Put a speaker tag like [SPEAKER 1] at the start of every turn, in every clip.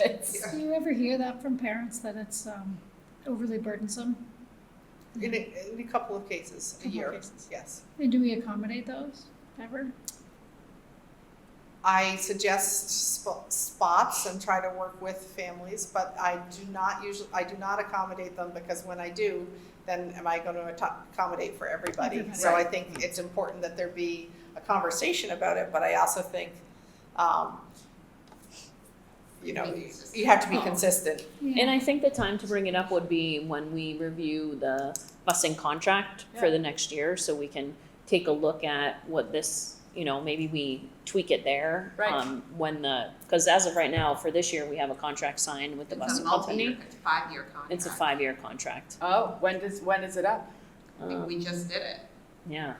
[SPEAKER 1] it's, do you ever hear that from parents that it's um, overly burdensome?
[SPEAKER 2] In a, in a couple of cases, a
[SPEAKER 1] Couple of
[SPEAKER 2] year,
[SPEAKER 1] cases.
[SPEAKER 2] yes.
[SPEAKER 1] And do we accommodate those ever?
[SPEAKER 2] I suggest sp- spots and try to work with families, but I do not usually, I do not accommodate them because when I do, then am I going to accommodate for everybody?
[SPEAKER 1] Everybody.
[SPEAKER 2] So I think it's important that there be a conversation about it, but I also think, um, you know, you- you have to be
[SPEAKER 3] Oh.
[SPEAKER 2] consistent.
[SPEAKER 1] Yeah.
[SPEAKER 3] And I think the time to bring it up would be when we review the busing contract for the next year, so we can take a look at what this, you know, maybe we tweak it there.
[SPEAKER 4] Right.
[SPEAKER 3] um, When the, because as of right now, for this year, we have a contract signed with the
[SPEAKER 5] It's a
[SPEAKER 3] busing
[SPEAKER 5] multi-year,
[SPEAKER 3] company.
[SPEAKER 5] it's a five-year contract.
[SPEAKER 3] It's a five-year contract.
[SPEAKER 4] Oh, when does, when is it up?
[SPEAKER 5] I mean, We
[SPEAKER 3] Um,
[SPEAKER 5] just did it.
[SPEAKER 3] Yeah,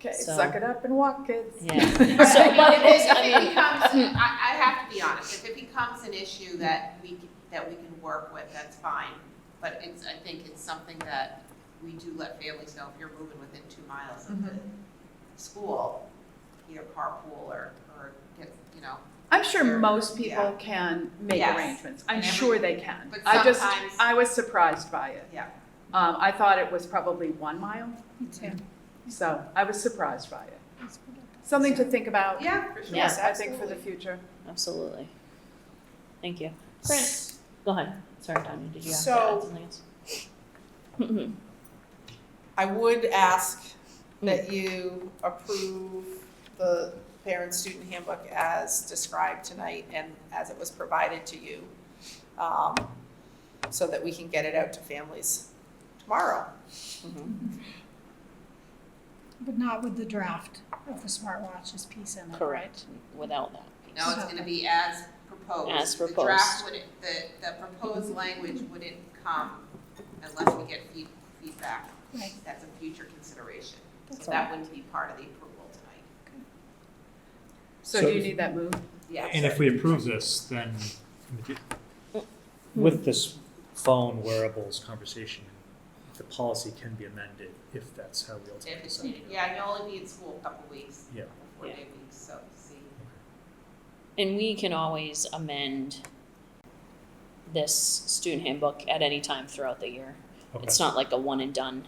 [SPEAKER 4] Okay,
[SPEAKER 3] So-
[SPEAKER 4] suck it up and walk, kids.
[SPEAKER 3] yeah.
[SPEAKER 5] So,
[SPEAKER 3] So, but it is,
[SPEAKER 5] If
[SPEAKER 3] I
[SPEAKER 5] it
[SPEAKER 3] mean-
[SPEAKER 5] becomes, I, I have to be honest, if it becomes an issue that we, c- that we can work with, that's fine. But it's, I think it's something that we do let families know, if you're moving within two miles of the
[SPEAKER 2] Mm-hmm.
[SPEAKER 5] school, either carpool or, or get, you know.
[SPEAKER 4] I'm sure
[SPEAKER 5] Sure.
[SPEAKER 4] most people
[SPEAKER 5] Yeah.
[SPEAKER 4] can make
[SPEAKER 5] Yes.
[SPEAKER 4] arrangements. I'm
[SPEAKER 5] And every-
[SPEAKER 4] sure they can.
[SPEAKER 5] But
[SPEAKER 4] I just,
[SPEAKER 5] sometimes-
[SPEAKER 4] I was surprised by it.
[SPEAKER 5] Yeah.
[SPEAKER 4] Um, I thought it was probably one mile,
[SPEAKER 1] Me too.
[SPEAKER 4] so I was surprised by it.
[SPEAKER 1] That's what I-
[SPEAKER 4] Something to think about.
[SPEAKER 5] Yeah, for sure.
[SPEAKER 4] Yes, I think for the future.
[SPEAKER 3] Absolutely. Thank you. Grant, go ahead. Sorry, Tanya, did you have to
[SPEAKER 2] So-
[SPEAKER 3] add something else? Mhm.
[SPEAKER 2] I would ask that you approve the parent-student handbook as described tonight and as it was provided to you, um, so that we can get it out to families tomorrow.
[SPEAKER 1] But not with the draft of the smartwatches piece in it, right?
[SPEAKER 3] Correct, without that.
[SPEAKER 5] No, it's gonna be as proposed.
[SPEAKER 3] As
[SPEAKER 5] The draft would, the, the proposed language wouldn't come unless we get feed, feedback.
[SPEAKER 1] Right.
[SPEAKER 5] That's a future consideration.
[SPEAKER 1] That's
[SPEAKER 5] So that wouldn't be part of the approval tonight.
[SPEAKER 4] So
[SPEAKER 6] So
[SPEAKER 4] do you
[SPEAKER 6] if-
[SPEAKER 4] need that moved?
[SPEAKER 5] Yeah.
[SPEAKER 6] And if we approve this, then with this phone wearables conversation, the policy can be amended if that's how we
[SPEAKER 5] If
[SPEAKER 6] ultimately
[SPEAKER 5] it's
[SPEAKER 6] decide.
[SPEAKER 5] needed, yeah, you'll only be in school a couple weeks.
[SPEAKER 6] Yeah.
[SPEAKER 5] Four
[SPEAKER 3] Yeah.
[SPEAKER 5] day weeks, so see.
[SPEAKER 3] And we can always amend this student handbook at any time throughout the year.
[SPEAKER 6] Okay.
[SPEAKER 3] It's not like a one and done.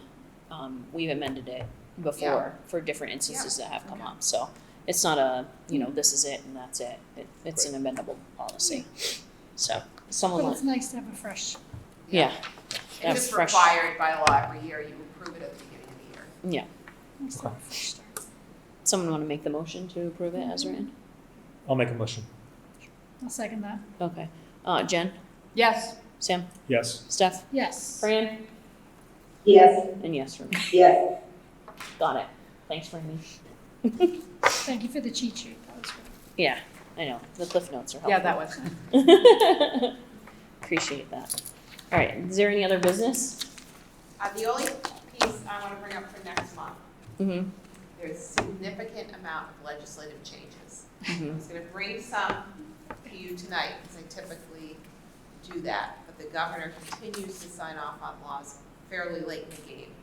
[SPEAKER 3] Um, we've amended it before for different instances that have come up, so it's not a, you know, this is it and that's it. It, it's an amendable policy. So, someone,
[SPEAKER 1] But
[SPEAKER 3] like-
[SPEAKER 1] it's nice to have a fresh,
[SPEAKER 3] yeah,
[SPEAKER 5] And
[SPEAKER 3] That's
[SPEAKER 5] it's
[SPEAKER 3] fresh.
[SPEAKER 5] required by law every year, you approve it at the beginning of the year.
[SPEAKER 1] nice to have a fresh start.
[SPEAKER 3] someone wanna make the motion to approve it as written?
[SPEAKER 6] I'll make a motion.
[SPEAKER 1] I'll second that.
[SPEAKER 3] Okay, uh, Jen,
[SPEAKER 4] Yes.
[SPEAKER 3] Sam,
[SPEAKER 6] Yes.
[SPEAKER 3] Steph,
[SPEAKER 1] Yes.
[SPEAKER 3] Fran,
[SPEAKER 7] Yes,
[SPEAKER 3] and yes for me.
[SPEAKER 7] yes.
[SPEAKER 3] Got it. Thanks, Franny.
[SPEAKER 1] Thank you for the cheat sheet. That was good.
[SPEAKER 3] Yeah, I know. The cliff notes are helpful.
[SPEAKER 4] Yeah, that was nice.
[SPEAKER 3] Appreciate that. All right, is there any other business?
[SPEAKER 5] Uh, the only piece I wanna bring up for next month,
[SPEAKER 3] Mm-hmm.
[SPEAKER 5] there's significant amount of legislative changes. I
[SPEAKER 3] Mhm.
[SPEAKER 5] was gonna bring some to you tonight, because I typically do that, but the governor continues to sign off on laws fairly late in the game.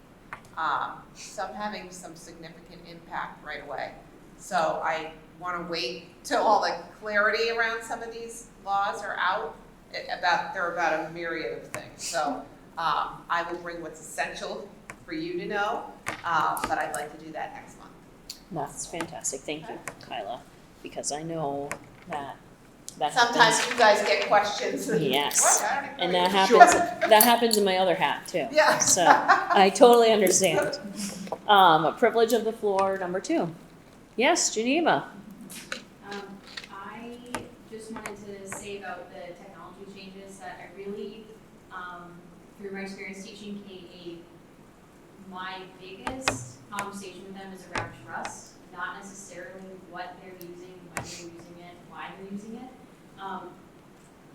[SPEAKER 5] Um, some having some significant impact right away. So I wanna wait till all the clarity around some of these laws are out, a- about, they're about a myriad of things. So, um, I will bring what's essential for you to know, uh, but I'd like to do that next month.
[SPEAKER 3] That's fantastic. Thank you, Kyla, because I know that that
[SPEAKER 5] Sometimes
[SPEAKER 3] happens.
[SPEAKER 5] you guys get questions.
[SPEAKER 3] Yes.
[SPEAKER 5] What? I don't
[SPEAKER 3] And
[SPEAKER 5] know.
[SPEAKER 3] that happens. That happens in my other hat too.
[SPEAKER 5] Yeah.
[SPEAKER 3] So I totally understand. Um, a privilege of the floor, number two. Yes, Geneva.
[SPEAKER 8] Um, I just wanted to say about the technology changes that I really, um, through my experience teaching K eight, my biggest conversation with them is around trust, not necessarily what they're using, when they're using it, why they're using it. Um,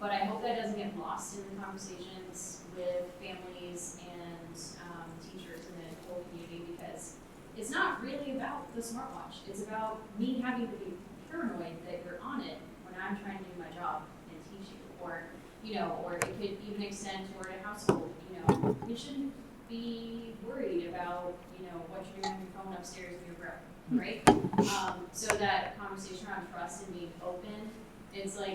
[SPEAKER 8] but I hope that doesn't get lost in the conversations with families and, um, teachers in the whole community because it's not really about the smartwatch. It's about me having to be paranoid that you're on it when I'm trying to do my job and teaching, or, you know, or it could even extend toward a household, you know. We shouldn't be worried about, you know, what you're doing on your phone upstairs in your room, right? Um, so that conversation around trust and being open, it's like,